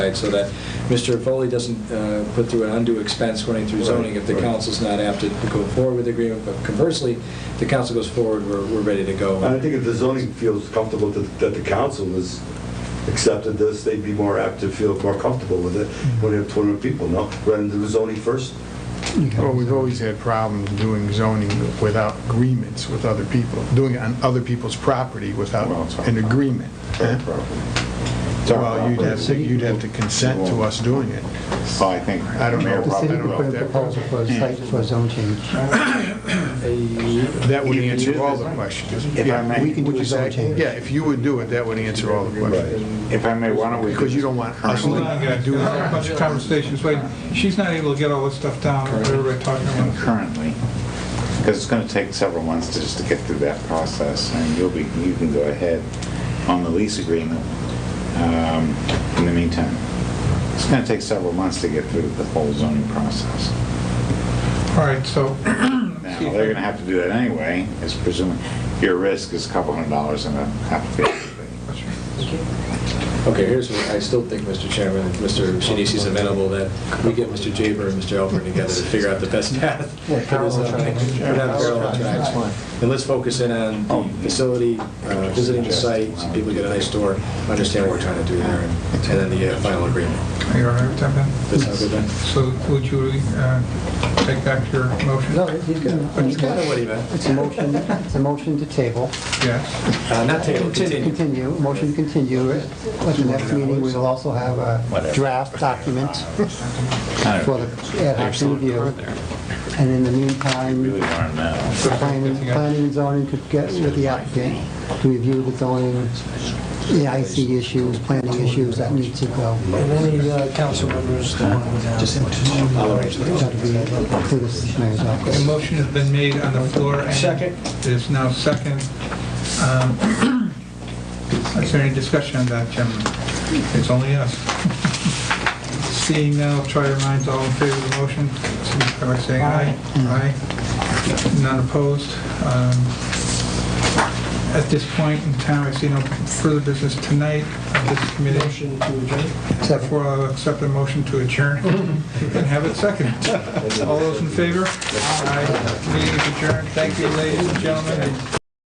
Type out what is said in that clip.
Right, so that Mr. Foley doesn't uh, put through an undue expense running through zoning if the Right, right. council's not apt to go forward with the agreement, but conversely, if the council goes forward, we're, we're ready to go. And I think if the zoning feels comfortable that that the council has accepted this, they'd be more apt to feel more comfortable with it when you have 200 people, no? Rather than do zoning first? Well, we've always had problems doing zoning without agreements with other people, doing it on other people's property without Well, it's our an agreement. It's our Well, you'd property. have to, you'd have to consent to us doing it. So I think. I don't know. Mayor The Rob- I city don't could know put if in a that- proposal for a site, for a zone change. Uh, That would answer all the questions. If I may. We can Would do you a say- zone change. Yeah, if you would do it, that would answer all the questions. If I may, why don't we? do Because you this don't want us currently? Hold on, guys, there's a bunch of conversations, wait, she's not able to get all this stuff down, everybody talking about. Currently, because it's going to take several months to- just to get through that process, and you'll be, you can go ahead on the lease agreement um, in the meantime. It's going to take several months to get through the whole zoning process. All right, so, Now, they're going to have to do that anyway, is presuming, your risk is a couple hundred dollars in a application fee. Okay, here's what I still think, Mr. Chairman, if Mr. Shinissi's amenable, that we get Mr. Jaber and Mr. Alford together to figure out the best path. for this parallel zoning. tracks. We're not parallel Parallel tracks, tracks. fine. And let's focus in on Oh. the facility, uh, visiting the site, so people get a nice tour, understand what we're trying to do there, and and then the uh, final agreement. are you all right with that, Ben? Does that sound good, Ben? So would you uh, take back your motion? No, he's got, he's got, Kinda what a- he meant. it's a motion, it's a motion to table, Yes, Uh, Not table, continue. continue, motion to continue. At the next meeting, we'll also have a draft document for the ad hoc review. And in the meantime, Really want to know. planning, planning and zoning could get with the applicant to review the zoning, the IC issues, planning issues that need to go. And any uh, council members that want to... I'll arrange the That'll be through the mayor's a office. motion has been made on the floor. and Second. It is now second. Um, Is there any discussion on that, gentlemen? It's only us. Seeing now, try your minds, all in favor of the motion, signify by saying aye. Aye. None opposed. Um, At this point in time, I see no further business tonight of this committee. Motion to adjourn? Second. Therefore, I'll accept a motion to adjourn and have it seconded. All those in favor? Aye. Meeting is adjourned. Thank you, ladies and gentlemen.